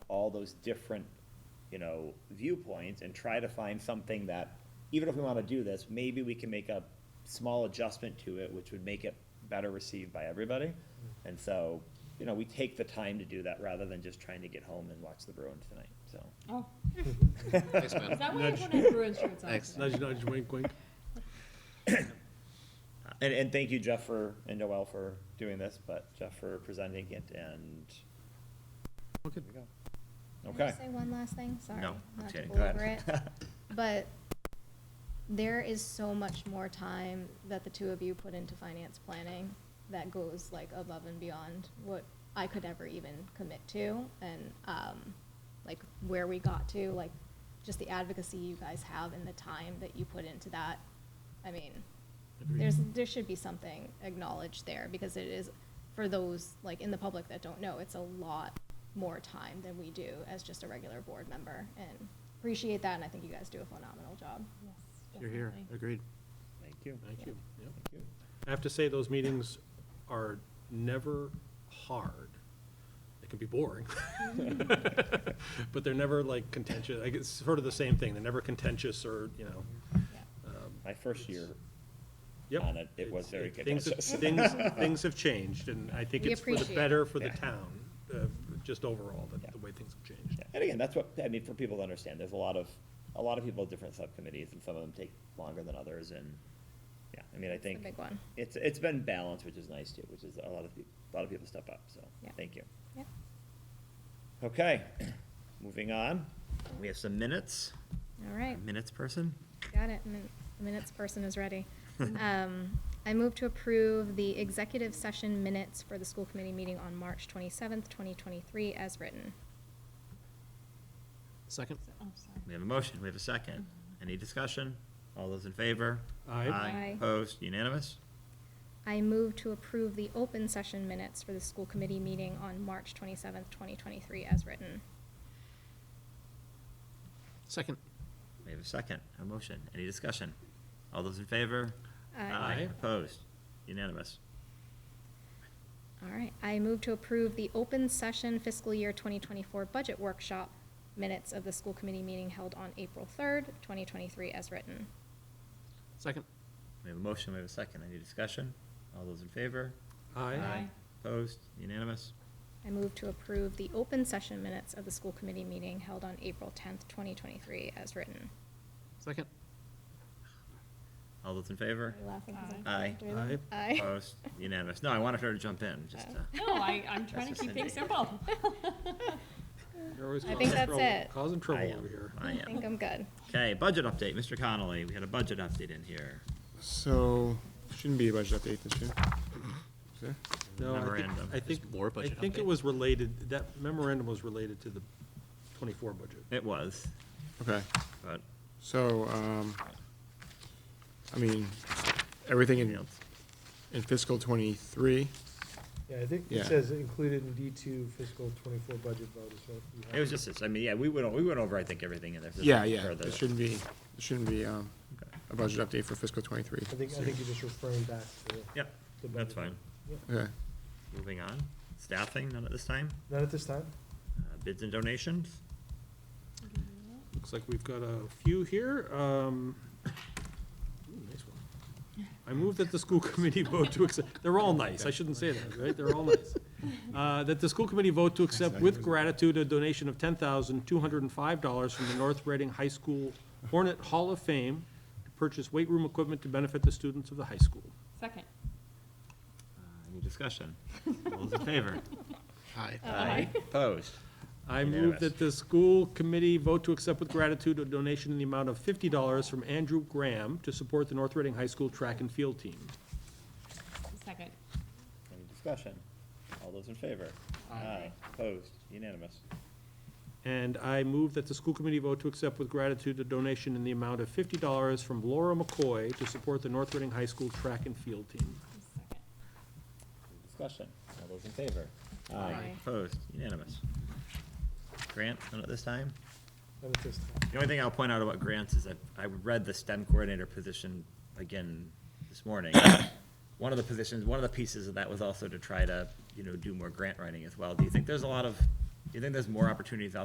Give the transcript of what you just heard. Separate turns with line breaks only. all those different, you know, viewpoints and try to find something that, even if we want to do this, maybe we can make a small adjustment to it, which would make it better received by everybody.
Mm-hmm.
And so, you know, we take the time to do that rather than just trying to get home and watch the Bruins tonight, so.
Oh,
Thanks,
is
man.
that why everyone has Bruins shirts on?
Thanks.
today?
Nudge, nudge, wink, wink.
Uh,
And, and thank you, Jeff, for, and Noel for doing this, but Jeff for presenting it and,
Okay.
Can I
okay.
Say one last thing, sorry.
No, I'm
not to
kidding. Go ahead.
belabor it, But there is so much more time that the two of you put into finance planning that goes like above and beyond what I could ever even commit to and, um, like where we got to, like just the advocacy you guys have and the time that you put into that. I mean, there's, there should be something acknowledged there because it is, for those like in the public that don't know, it's a lot more time than we do as just a regular board member and appreciate that and I think you guys do a phenomenal job.
Yes,
You're here,
definitely.
agreed.
Thank you.
Thank you. Yep.
Thank you.
I have to say, those meetings are never hard. They can be boring. But they're never like contentious, like, it's sort of the same thing, they're never contentious or, you know.
Yeah.
um,
My first year
yep.
on it, it was very
It- things have-
contentious.
Things, things have changed, and I think
We
it's for the
appreciate
better for the
Yeah.
town, uh, just overall, the,
Yeah.
the way things have changed.
Yeah, And again, that's what, I mean, for people to understand, there's a lot of, a lot of people have different subcommittees, and some of them take longer than others, and, yeah, I mean, I
It's a
think.
big one.
It's, it's been balanced, which is nice too, which is a lot of, peop- a lot of people step up, so,
Yeah.
thank you.
Yeah.
Okay, moving on, we have some minutes,
All right.
minutes person?
Got it. Min- The minutes person is ready. Um, I move to approve the executive session minutes for the school committee meeting on March twenty-seventh, twenty twenty-three as written.
Second?
So- Oh, sorry.
We have a motion, we have a second. Any discussion? All those in favor?
Aye.
Aye.
Opposed, unanimous?
I move to approve the open session minutes for the school committee meeting on March twenty-seventh, twenty twenty-three as written.
Second.
We have a second, a motion, any discussion? All those in favor?
Aye.
Aye.
Opposed, unanimous?
All right, I move to approve the open session fiscal year 2024 budget workshop minutes of the school committee meeting held on April 3rd, 2023, as written.
Second.
We have a motion, we have a second, any discussion? All those in favor?
Aye.
Opposed, unanimous?
I move to approve the open session minutes of the school committee meeting held on April 10th, 2023, as written.
Second.
All those in favor?
Are you laughing 'cause I'm
Aye.
doing that?
Aye.
Aye.
Opposed, unanimous? No, I wanted her to jump in, just
Oh.
to.
No, I, I'm
That's
trying to
just
keep
an
things
idea.
simple.
You're always
I
causing
think that's
trouble-
it.
Causing
I
trouble
am,
over here.
I
I think
am.
I'm good.
Okay, budget update, Mr. Connolly, we had a budget update in here.
So, shouldn't be a budget update this year. Is there?
No, I think,
Memorandum.
I think,
more budget
I think it
update.
was related, that memorandum was related to the twenty-four budget.
It was,
Okay,
but
so, um, I mean, everything in, in fiscal twenty-three,
Yeah, I think
Yeah.
it says included in D two fiscal twenty-four budget vote is what you have.
it was just this, I mean, yeah, we went, o- we went over, I think, everything in there. There's
yeah,
nothing
yeah,
further
there
that-
shouldn't be, there shouldn't be, um,
Okay.
a budget update for fiscal twenty-three.
I think, I think you're just referring back to.
Yep,
the
that's
budget vote.
fine.
Yep.
Okay,
Moving on, staffing, none at this time,
Not at this time?
Uh, bids and donations,
Looks like we've got a few here. Um, ooh, nice one. I move that the school committee vote to accept, they're all nice, I shouldn't say that, right? They're all nice. Uh, That the school committee vote to accept with gratitude a donation of ten thousand two hundred and five dollars from the North Reading High School Hornet Hall of Fame to purchase weight room equipment to benefit the students of the high school.
Second.
Uh, any discussion? All those in favor?
Hi.
Aye. Opposed?
I move
Unanimous.
that the school committee vote to accept with gratitude a donation in the amount of fifty dollars from Andrew Graham to support the North Reading High School track and field team.
Second.
Any discussion? All those in favor? Aye. Opposed? Unanimous.
And I move that the school committee vote to accept with gratitude a donation in the amount of fifty dollars from Laura McCoy to support the North Reading High School track and field team.
Second.
Any discussion? All those in favor?
Aye.
Opposed? Unanimous. Grant, none at this time?
Not at this time.
The only thing I'll point out about grants is I, I read the STEM coordinator position again this morning. One of the positions, one of the pieces of that was also to try to, you know, do more grant writing as well. Do you think there's a lot of, do you think there's more opportunities out